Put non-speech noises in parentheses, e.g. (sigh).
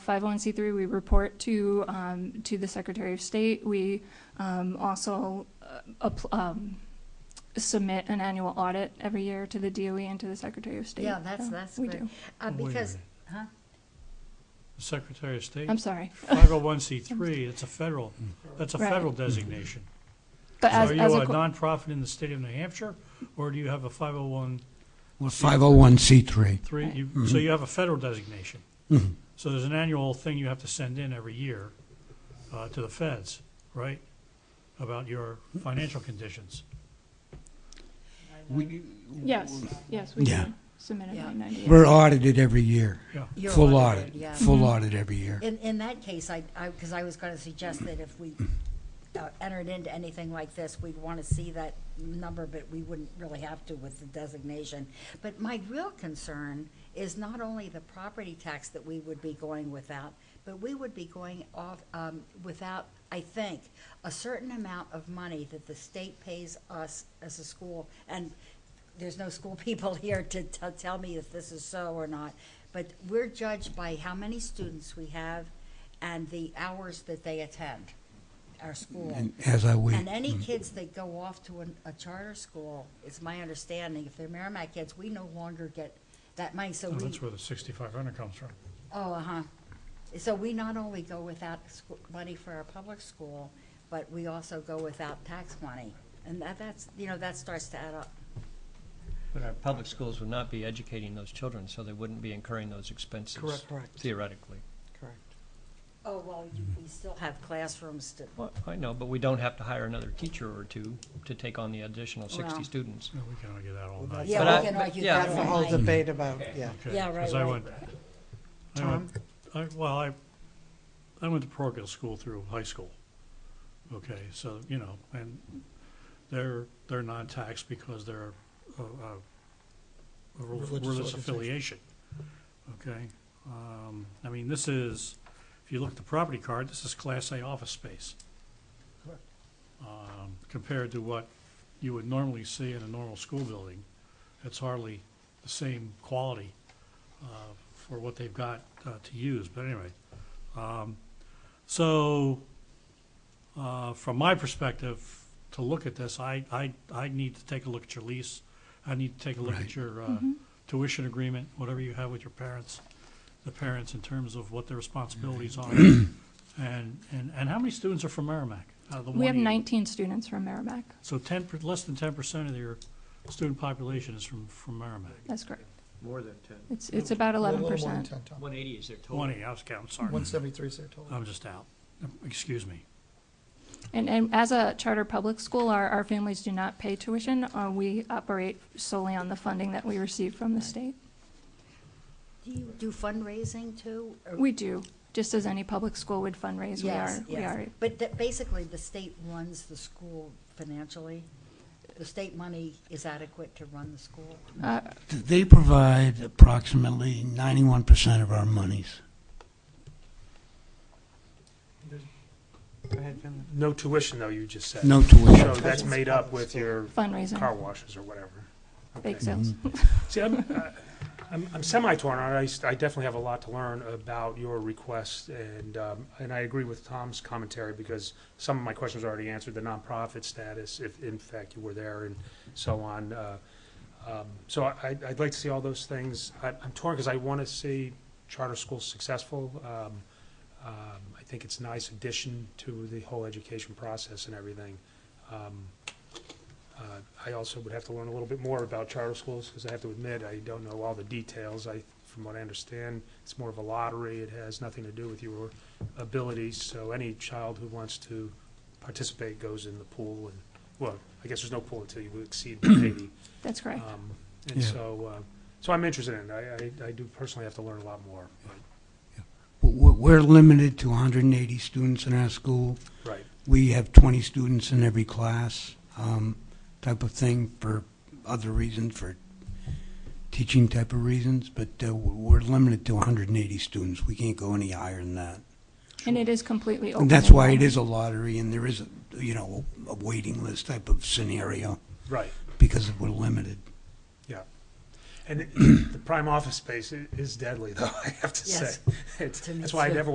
501c3, we report to, um, to the Secretary of State. We um, also uh, apl- um, submit an annual audit every year to the DOE and to the Secretary of State. Yeah, that's, So that's We good. do. Uh, Wait a because, minute. huh? The Secretary of State, I'm (laughs) sorry. 501c3, it's a federal, that's a Right. federal designation. But So as, are you as a a, co- nonprofit in the state of New Hampshire, or do you have a 501c3? Well, 501c3. You- So you have a federal designation. So there's an annual thing you have to send in every year uh, to the feds, right? About your financial conditions. We- yes, yes, we do Yeah. submit a Yeah. 998. We're audited every year, Yeah. You're full audited, audit, yeah. Mm-hmm. full audit every year. In, in that case, I, I, because I was going to suggest that if we uh, entered into anything like this, we'd want to see that number, but we wouldn't really have to with the designation. But my real concern is not only the property tax that we would be going without, but we would be going off, um, without, I think, a certain amount of money that the state pays us as a school. And there's no school (laughs) people here to, to tell me if this is so or not. But we're judged by how many students we have and the hours that they attend our school. And as I mm. wait, And any kids that go off to an, a charter school, it's my understanding, if they're Merrimack kids, we no longer get that money, so Oh, So we, Oh, that's where the 6,500 comes from. oh, uh-huh. So we not only go without scho- money for our public school, but we also go without tax money. And that, that's, you know, that starts to add up. But our public schools would not be educating those children, so they wouldn't be incurring those expenses. Correct. Correct. Theoretically. Correct. Oh, well, you- we still have classrooms to, Well, I know, but we don't have to hire another teacher or two to take on the additional Well. sixty students. No, Oh, we can argue that all Well, night. that's- Yeah, But we I- can but- argue yeah, That's a whole Right. debate about, yeah. Okay, Yeah, right, 'cause I right. went- I went- I, well, I, I went to parochial school through high school. Okay, so, you know, and they're, they're non-taxed because they're a, a a rel- Religious religious organization. affiliation. Okay, um, I mean, this is, if you look at the property card, this is Class A office space. Um, compared to what you would normally see in a normal school building, it's hardly the same quality uh, for what they've got uh, to use, but anyway. um, So, uh, from my perspective, to look at this, I, I, I need to take a look at your lease. I need to take a look at Right. your uh, Mm-hmm. tuition agreement, whatever you have with your parents, the parents in terms of what their responsibilities are. And, and, and how many students are from Merrimack? out of the We have 180? 19 students from Merrimack. So ten, per- less than ten percent of your student population is from, from Merrimack. That's correct. More than ten. It's, it's about 11%. One eighty is their total. Twenty, I was counting, sorry. One seventy-three is their total. I'm just out. Excuse me. And, and as a charter public school, our, our families do not pay tuition. Uh, we operate solely on the funding that we receive from the state. do you do fundraising too? or- We do, just as any public school would fundraise, we Yes, are, we yes. are. But that basically, the state runs the school financially. The state money is adequate to run the school. they provide approximately 91% of our monies. Go ahead, Finley. No tuition, though, you just said. No So tuition. that's made up with your car Fundraising, washes or whatever. bake sales. Mm-hmm. See, I'm, uh, I'm, I'm semi-torn on it. I s- I, definitely have a lot to learn about your request, and, um, and I agree with Tom's commentary, because some of my questions are already answered, the nonprofit status, if in fact you were there, and so on. Uh, um, So I, I'd like to see all those things. I- I'm torn, because I want to see charter schools successful. Um, um, I think it's a nice addition to the whole education process and everything. Um, uh, I also would have to learn a little bit more about charter schools, because I have to admit, I don't know all the details. I, from what I understand, it's more of a lottery. It has nothing to do with your abilities, so any child who wants to participate goes in the pool, and, well, I guess there's no pool until you exceed eighty. (clears throat) That's correct. Um, And Yeah. so, uh, so I'm interested in it. I- I, I do personally have to learn a lot more, but, We're we're limited to 180 students in our school. right. We have 20 students in every class, um, type of thing, for other reasons, for teaching type of reasons, but uh, we're limited to 180 students. We can't go any higher than that. And it is completely open. And that's and why it open. is a lottery, and there is, a you know, a waiting list type of scenario, Right, because we're limited. yeah. (clears throat) And the prime office space i- is deadly, though, I have to Yes. say. It's- (laughs) To me That's why I too. never